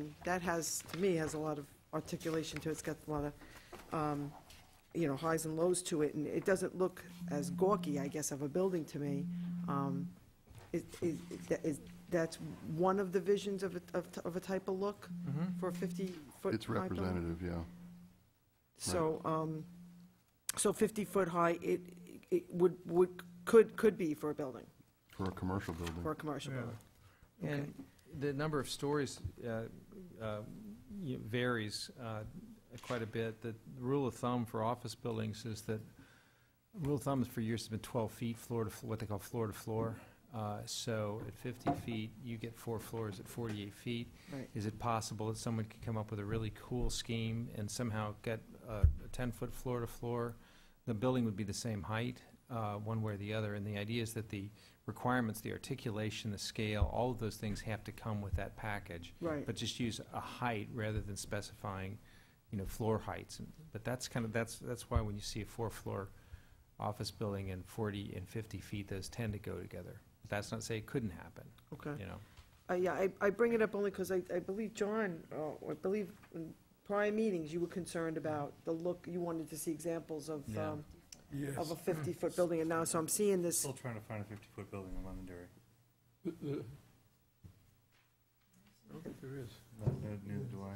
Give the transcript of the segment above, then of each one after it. um, that has, to me, has a lot of articulation to it, it's got a lot of, um, you know, highs and lows to it, and it doesn't look as gawky, I guess, of a building to me. Um, Is, is, that- is- that's one of the visions of a, of t- of a type of look Mm-hmm. for a 50-foot? It's representative, yeah. So, um, so 50-foot high, it, it would, would, could, could be for a building, For a commercial building. for a commercial building. Okay. And the number of stories uh, uh, you know, varies uh, quite a bit. The rule of thumb for office buildings is that, rule of thumb for years has been 12 feet floor to, fl- what they call floor to floor. Uh, So at 50 feet, you get four floors at 48 feet. Right. Is it possible that someone could come up with a really cool scheme and somehow get uh, a 10-foot floor to floor? The building would be the same height, uh, one way or the other, and the idea is that the requirements, the articulation, the scale, all of those things have to come with that package, Right. but just use a height rather than specifying, you know, floor heights. And- But that's kind of, that's, that's why when you see a four-floor office building and 40 and 50 feet, those tend to go together. That's not to say it couldn't happen, Okay. you know? Uh, Yeah, I, I bring it up only because I, I believe John, uh, I believe in prior meetings, you were concerned about the look, you wanted to see examples of, Yeah. um, Yes. of a 50-foot building, and now, so I'm seeing this, Still trying to find a fifty-foot building in Londonderry. The- the- I don't think there is. No, no- Neither do I.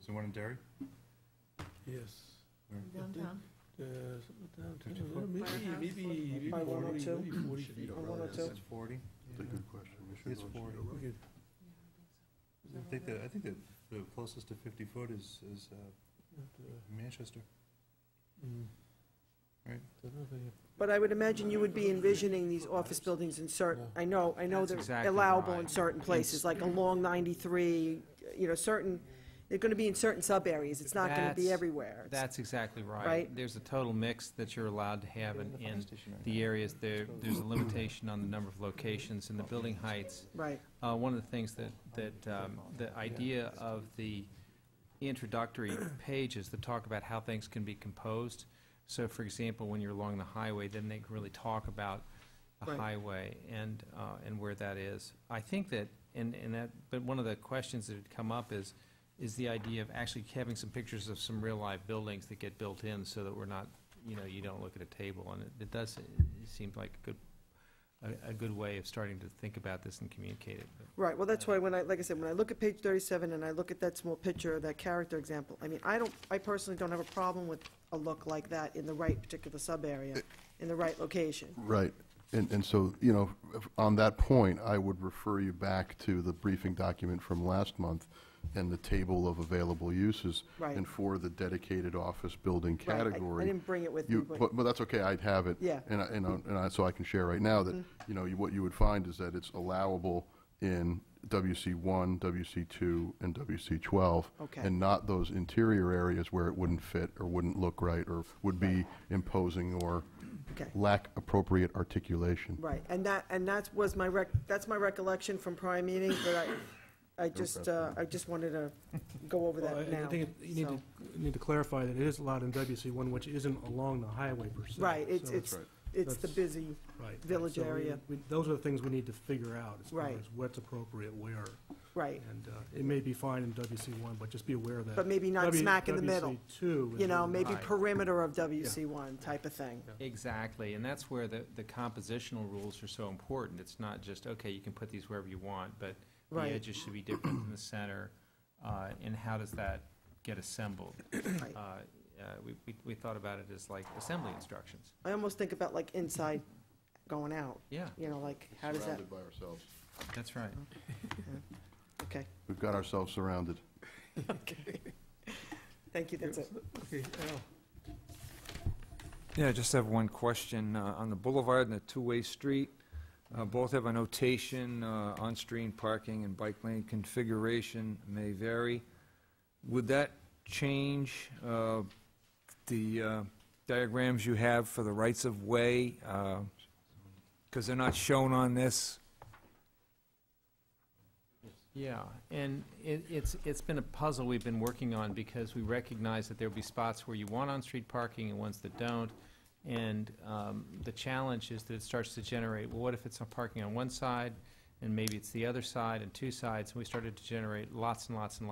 Is there one in Derry? Yes. Where? Downtown? Uh, something downtown, 54? Maybe, maybe, maybe By 40, 102? maybe 40 feet. On 102? It's forty. That's a good question. We should It's go check 40. it out. We could- I think that, I think that the closest to fifty-foot is, is uh, uh, Manchester. mm. Right. Don't know if they have- but I would imagine you would be envisioning these office buildings in certain, I know, I know That's they're exactly allowable in right. certain places, like along 93, you know, certain, they're gonna be in certain sub-areas, it's not gonna be That's- everywhere. It's- That's exactly right. Right. There's a total mix that you're allowed to have in, in the areas. There, there's a limitation on the number of locations and the building heights. Right, Uh, one of the things that, that, um, the idea of the introductory pages that talk about how things can be composed. So for example, when you're along the highway, then they can really talk about the Right. highway and, uh, and where that is. I think that, and, and that, but one of the questions that had come up is, is the idea of actually having some pictures of some real live buildings that get built in so that we're not, you know, you don't look at a table. And it, it does, it seems like a good, a, a good way of starting to think about this and communicate it. right, well, that's why, when I, like I said, when I look at page 37 and I look at that small picture, that character example, I mean, I don't, I personally don't have a problem with a look like that in the right particular sub-area, in the right location. Right. And, and so, you know, if- on that point, I would refer you back to the briefing document from last month and the table of available uses. Right. And for the dedicated office building Right, I- category. I didn't bring it with me, You, but, but, but that's okay, I'd have it. Yeah. Mm-hmm. And I, and I, and I, so I can share right now that, you know, you- what you would find is that it's allowable in WC one, WC two, and WC twelve. Okay. And not those interior areas where it wouldn't fit or wouldn't look right or would be imposing or okay, lack appropriate articulation. right, and that, and that was my rec, that's my recollection from prior meeting, but I, I just, uh, I just wanted to go over Well, that Oh, I- I now. think it- you need so- to, you need to clarify that it is allowed in WC one, which isn't along the highway per se. Right, it's, So- it's, it's the That's- busy, right, right. village So we- area. we- Those are the things we need to figure out, as far Right. as what's appropriate where. right, And uh, it may be fine in WC one, but just be aware that. but maybe not W- smack in the middle, WC two. is you know, really- maybe Right. perimeter of WC one type of thing. Exactly, and that's where the, the compositional rules are so important. It's not just, okay, you can put these wherever you want, but the Right. edges should be different than the center, uh, and how does that get assembled? Right. Uh, uh, we, we, we thought about it as like assembly instructions. I almost think about like inside going out, Yeah, you know, like, how does that, Surrounded by ourselves. that's right. okay, We've got ourselves surrounded. thank you, that's it. Okay, Al, Yeah, I just have one question. uh, On the boulevard and the two-way street, uh, both have a notation, uh, on-street parking and bike lane configuration may vary. Would that change uh, the uh, diagrams you have for the rights-of-way? Because Uh, they're not shown on this. Yeah, and it, it's, it's been a puzzle we've been working on because we recognize that there'll be spots where you want on-street parking and ones that don't. And, um, the challenge is that it starts to generate, well, what if it's on parking on one side and maybe it's the other side and two sides? And we started to generate lots and lots and